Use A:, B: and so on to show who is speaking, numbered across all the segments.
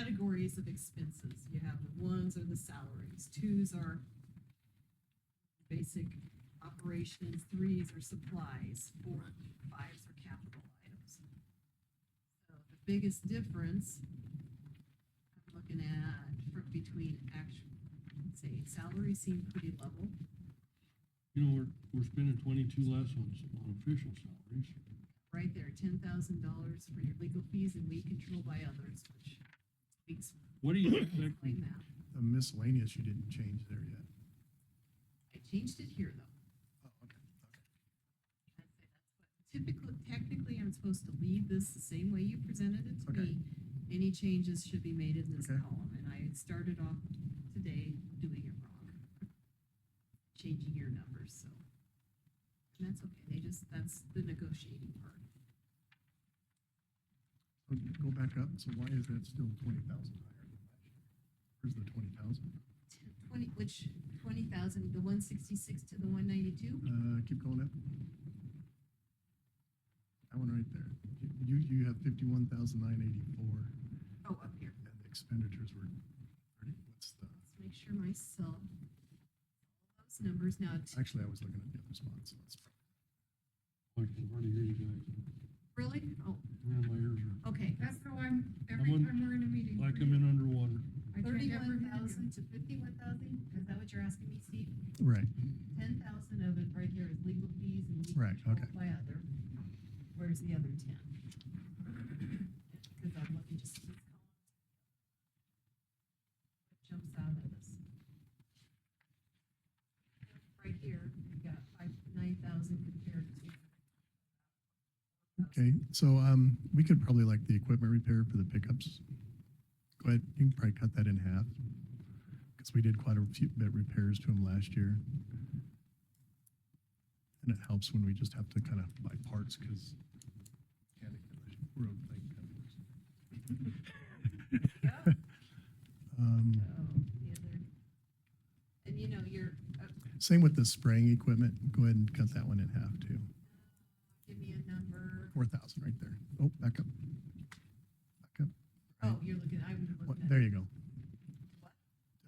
A: categories of expenses. You have the ones are the salaries, twos are basic operations, threes are supplies, four, fives are capital items. So the biggest difference I'm looking at for between actual, let's see, salaries seem pretty level.
B: You know, we're, we're spending twenty-two less on, s- on official salaries.
A: right there, ten thousand dollars for your legal fees and we control by others, which speaks
B: What do you
A: like
B: expect?
A: that.
C: The miscellaneous, you didn't change there yet.
A: I changed it here though.
C: Oh, okay, okay.
A: I'd say that's what- Typically, technically, I'm supposed to leave this the same way you presented it to
C: Okay.
A: me. Any changes should be made in this
C: Okay.
A: column, and I had started off today doing it wrong. Changing your numbers, so. And that's okay, they just, that's the negotiating part.
C: So Go back up, so why is that still twenty thousand higher than last year? Where's the twenty thousand?
A: Twenty, which, twenty thousand, the one sixty-six to the one ninety-two?
C: Uh, keep going up. That one right there. You, you have fifty-one thousand nine eighty-four,
A: Oh, up here.
C: and the expenditures were thirty, what's the,
A: Let's make sure myself, those numbers now, t-
C: actually, I was looking at the other spot, so that's.
B: I can hardly hear you guys.
A: really? Oh,
B: Man, my ears are,
A: okay.
D: That's how I'm, every
B: on-
D: time we're in a meeting.
B: I come in underwater.
D: I try never
A: Thirty-one
D: to do
A: thousand to fifty-one thousand, is that what you're asking me, Steve?
C: Right,
A: Ten thousand of it right here is legal fees and we
C: Right,
A: control
C: okay.
A: by other. Where's the other ten? Because I'm looking just. at this column. What Jumps out at us. Right here, we got five, nine thousand compared to.
C: okay, so, um, we could probably like the equipment repair for the pickups. Go ahead, you can probably cut that in half, because we did quite a few bit repairs to them last year. And it helps when we just have to kind of buy parts, because road thing.
A: Yeah.
C: Um,
A: Oh, the other. And you know, you're, uh,
C: Same with the spraying equipment. Go ahead and cut that one in half too.
A: give me a number.
C: Four thousand right there. Oh, back up. Back up.
A: Oh, you're looking, I'm
C: What-
A: looking at.
C: There you go.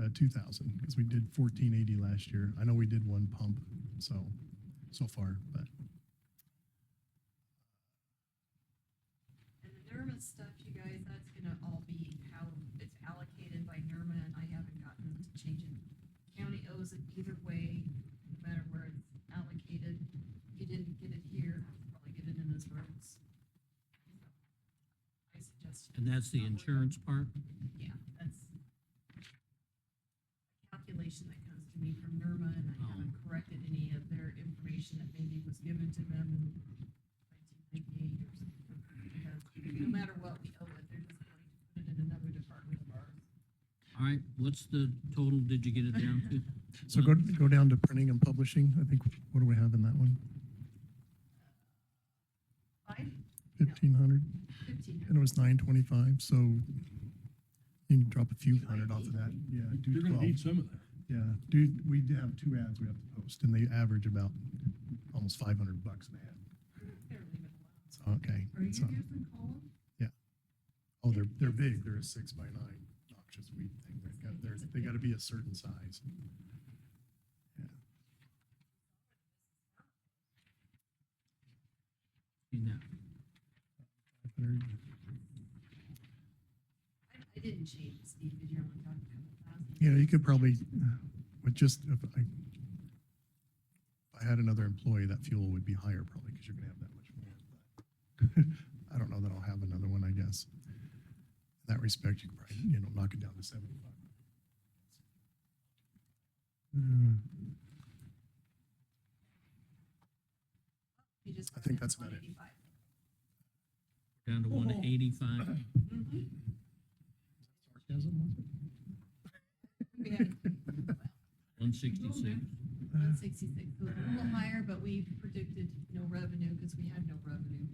C: Uh, two thousand, because we did fourteen eighty last year. I know we did one pump, so, so far, but
A: And the NERMA stuff, you guys, that's gonna all be how it's allocated by NERMA and I haven't gotten to change it. County owes it either way, no matter where it's allocated. If you didn't get it here, I'll probably get it in his roads. I suggest.
E: And that's the
A: Not worry about it.
E: insurance part?
A: Yeah, that's a calculation that comes to me from NERMA, and I
C: Oh.
A: haven't corrected any of their information that maybe was given to them in nineteen ninety-eight or something. Because No matter what we owe it, they're just going to put it in another department of ours.
E: All right, what's the total, did you get it down to?
C: So go, go down to printing and publishing. I think, what do we have in that one?
A: Five,
C: Fifteen hundred?
A: fifteen.
C: And it was nine twenty-five, so you can drop a few hundred off of that. Yeah, do
B: You're gonna
C: twelve.
B: need some of that.
C: Yeah, dude, we do have two ads we have to post and they average about almost five hundred bucks an ad.
A: They're leaving it alone.
C: So, okay.
D: Are you
C: so-
D: using column?
C: Oh, they're, they're big. They're a six by nine noxious weed thing. They've got, they're, they gotta be a certain size.
E: You know,
A: I, I didn't change, Steve, because you're only talking a couple thousand.
C: You know, you could probably, with just, if I, if I had another employee, that fuel would be higher probably, cause you're gonna have that much more. but I don't know that I'll have another one, I guess. In that respect, you could probably, you know, knock it down to seventy-five. Hmm.
A: You just
C: I think
A: went
C: that's about it.
A: 185.
E: down to one eighty-five.
A: Mhm.
C: Sarcasm, was it?
A: We had
E: One sixty-six.
A: one sixty-six, a little higher, but we predicted no revenue because we had no revenue.